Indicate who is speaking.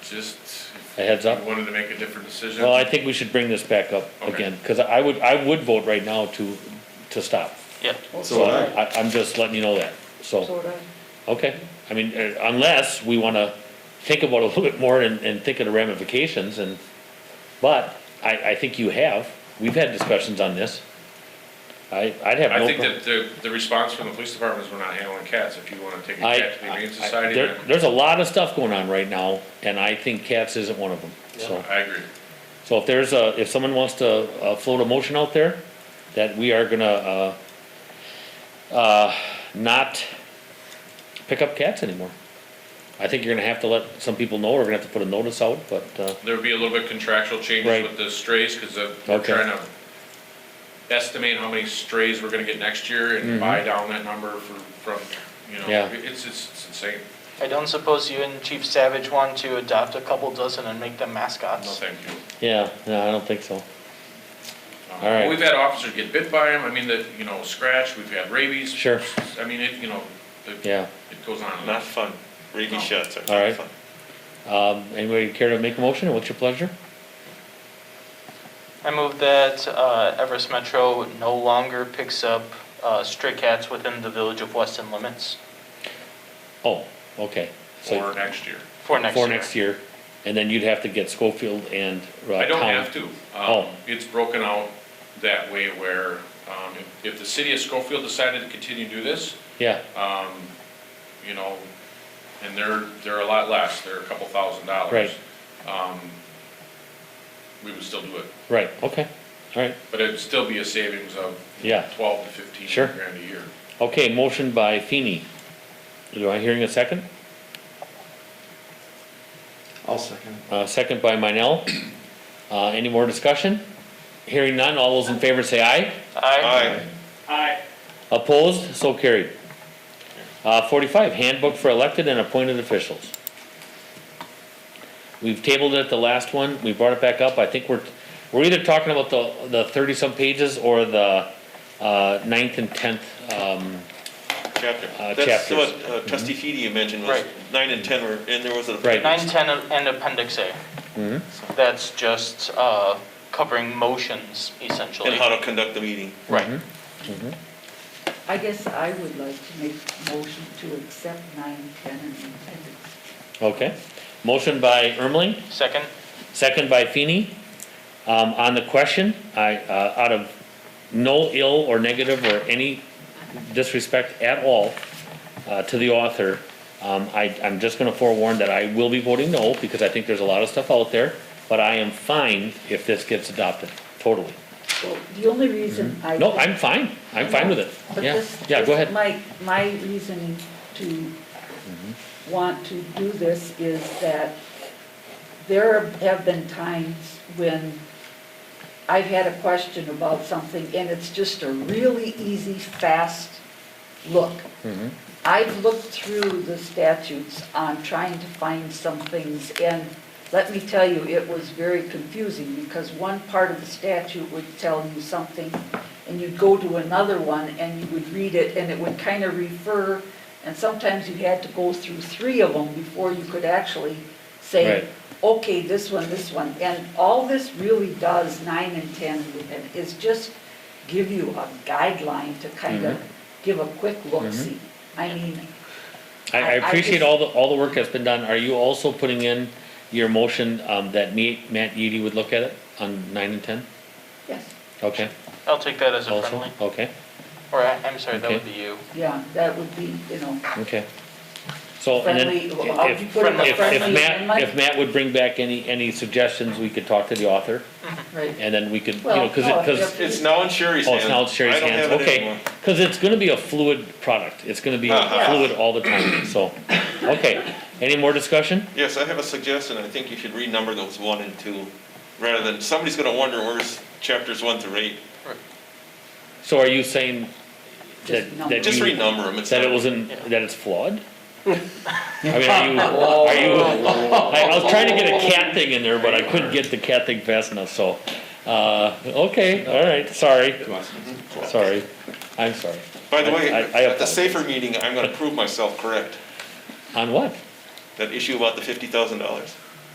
Speaker 1: just. if
Speaker 2: A heads up?
Speaker 1: you Wanted to make a different decision.
Speaker 2: Well, I think we should bring this back up
Speaker 1: Okay.
Speaker 2: again, because I would, I would vote right now to, to stop.
Speaker 3: Yep.
Speaker 2: So I, I'm just letting you know that, so, okay. I mean, uh, unless we wanna think about it a little bit more and, and think of the ramifications and, but I, I think you have, we've had discussions on this. I, I'd have
Speaker 1: I
Speaker 2: no.
Speaker 1: think
Speaker 2: prob-
Speaker 1: that the, the response from the police department is we're not handling cats. If you wanna take a
Speaker 2: I-
Speaker 1: cat to the Humane
Speaker 2: I- I-
Speaker 1: Society,
Speaker 2: there-
Speaker 1: then
Speaker 2: There's a lot of stuff going on right now, and I think cats isn't one of them, so.
Speaker 1: I agree.
Speaker 2: So if there's a, if someone wants to uh, float a motion out there, that we are gonna, uh, uh, not pick up cats anymore. I think you're gonna have to let some people know, we're gonna have to put a notice out, but, uh,
Speaker 1: There would be a little bit contractual
Speaker 2: Right.
Speaker 1: changes with the strays, cause the- we're
Speaker 2: Okay.
Speaker 1: trying to estimate how many strays we're gonna get next year and buy down that number for, from, you know,
Speaker 2: Mm-hmm. Yeah.
Speaker 1: it's, it's it's insane.
Speaker 3: I don't suppose you and Chief Savage want to adopt a couple dozen and make them
Speaker 1: No,
Speaker 3: mascots?
Speaker 1: thank you.
Speaker 2: yeah, no, I don't think so.
Speaker 1: Um,
Speaker 2: All right.
Speaker 1: We've had officers get bit by them, I mean, the, you know, scratch, we've had rabies.
Speaker 2: Sure.
Speaker 1: I mean, it, you know, it,
Speaker 2: Yeah,
Speaker 1: it goes on and on.
Speaker 4: Not fun. Rabies
Speaker 1: No.
Speaker 4: shots are
Speaker 2: All right.
Speaker 4: not fun.
Speaker 2: um, anybody care to make a motion, what's your pleasure?
Speaker 3: I move that uh, Everest Metro no longer picks up uh, stray cats within the village of Weston limits
Speaker 2: Oh, okay. So
Speaker 1: Or next year.
Speaker 3: for next year.
Speaker 2: For next year, and then you'd have to get Schofield and. uh,
Speaker 1: I don't
Speaker 2: Town.
Speaker 1: have to. Um,
Speaker 2: Oh.
Speaker 1: it's broken out that way where, um, if, if the city of Schofield decided to continue to do this,
Speaker 2: Yeah,
Speaker 1: um, you know, and they're, they're a lot less, they're a couple thousand dollars. Um, we would still do it,
Speaker 2: right, okay, all right.
Speaker 1: but it'd still be a savings of
Speaker 2: Yeah.
Speaker 1: twelve to fifteen
Speaker 2: Sure.
Speaker 1: grand a year.
Speaker 2: Okay, motion by Feeny. Do I hearing a second?
Speaker 5: I'll second.
Speaker 2: Uh, second by Minell. Uh, any more discussion? Hearing none, all those in favor say aye.
Speaker 3: Aye.
Speaker 4: Aye.
Speaker 2: Opposed, so carried. Uh, forty-five, handbook for elected and appointed officials. We've tabled it the last one, we brought it back up, I think we're, we're either talking about the, the thirty-some pages or the, uh, ninth and tenth, um,
Speaker 4: Chapter.
Speaker 2: Uh,
Speaker 4: That's
Speaker 2: chapters. Mm-hmm.
Speaker 4: what uh, trustee Feedy had mentioned was
Speaker 3: Right.
Speaker 4: nine and ten were, and there was a.
Speaker 2: Right.
Speaker 3: Nine, ten, and appendix A. That's just uh, covering motions essentially.
Speaker 4: And how to conduct the meeting.
Speaker 2: Mm-hmm.
Speaker 3: Right.
Speaker 6: I guess I would like to make a motion to accept nine, ten, and appendix.
Speaker 2: okay. Motion by Ermeling,
Speaker 3: Second?
Speaker 2: Second by Feeny. Um, on the question, I, uh, out of no ill or negative or any disrespect at all, uh, to the author, um, I, I'm just gonna forewarn that I will be voting no, because I think there's a lot of stuff out there, but I am fine if this gets adopted, totally.
Speaker 6: Well, the only reason I.
Speaker 2: Mm-hmm. No, I'm fine, I'm fine with
Speaker 6: But
Speaker 2: it, yeah,
Speaker 6: this-
Speaker 2: yeah, go
Speaker 6: this-
Speaker 2: ahead,
Speaker 6: My, my reason to
Speaker 2: Mm-hmm.
Speaker 6: want to do this is that there have been times when I've had a question about something, and it's just a really easy, fast look. I've looked through the statutes on trying to find some things, and let me tell you, it was very confusing, because one part of the statute would tell you something, and you'd go to another one, and you would read it, and it would kind of refer, and sometimes you had to go through three of them before you could actually
Speaker 2: Right.
Speaker 6: say, okay, this one, this one. And all this really does, nine and 10, and is just give you a guideline to kind of
Speaker 2: Mm-hmm.
Speaker 6: give a quick look-see. I mean,
Speaker 2: I, I
Speaker 6: I- I
Speaker 2: appreciate
Speaker 6: just-
Speaker 2: all the, all the work that's been done, are you also putting in your motion, um, that me, Matt Eady would look at it on nine and ten?
Speaker 6: yes,
Speaker 2: Okay,
Speaker 3: I'll take that as a
Speaker 2: also,
Speaker 3: friendly.
Speaker 2: okay,
Speaker 3: Or, I- I'm sorry, that
Speaker 2: Okay.
Speaker 3: would be you.
Speaker 6: yeah, that would be, you know,
Speaker 2: okay. So, and then,
Speaker 6: friendly, I'll
Speaker 2: if,
Speaker 6: you
Speaker 2: if,
Speaker 6: put in
Speaker 3: friendly-
Speaker 6: a
Speaker 2: if
Speaker 6: friendly
Speaker 2: Matt, if
Speaker 6: amendment.
Speaker 2: Matt would bring back any, any suggestions, we could talk to the author,
Speaker 6: Right,
Speaker 2: and then we could, you know,
Speaker 6: Well,
Speaker 2: cause
Speaker 6: no,
Speaker 2: it, cause,
Speaker 6: if-
Speaker 4: It's now in Sherry's
Speaker 2: oh,
Speaker 4: hands.
Speaker 2: it's now it's Sherry's
Speaker 4: I don't
Speaker 2: hands,
Speaker 4: have it
Speaker 2: okay.
Speaker 4: anymore.
Speaker 2: Cause it's gonna be a fluid product, it's gonna be
Speaker 4: Uh-huh.
Speaker 2: fluid all the time, so, okay, any more discussion?
Speaker 4: Yes, I have a suggestion. I think you should renumber those one and two, rather than, somebody's gonna wonder where's chapters one through eight.
Speaker 2: So are you saying that,
Speaker 6: Just no.
Speaker 2: that
Speaker 4: Just
Speaker 2: you,
Speaker 4: renumber them. It's
Speaker 2: that it
Speaker 4: not-
Speaker 2: was in,
Speaker 3: Yeah.
Speaker 2: that it's flawed? I mean, are you, are you, I, I was trying to get a cat thing in there, but I couldn't get the cat thing fast enough, so, uh, okay, all right, sorry, sorry, I'm sorry.
Speaker 4: By the way,
Speaker 2: I- I
Speaker 4: at the
Speaker 2: apologize.
Speaker 4: safer meeting, I'm gonna prove myself correct.
Speaker 2: On what?
Speaker 4: That issue about the fifty thousand dollars.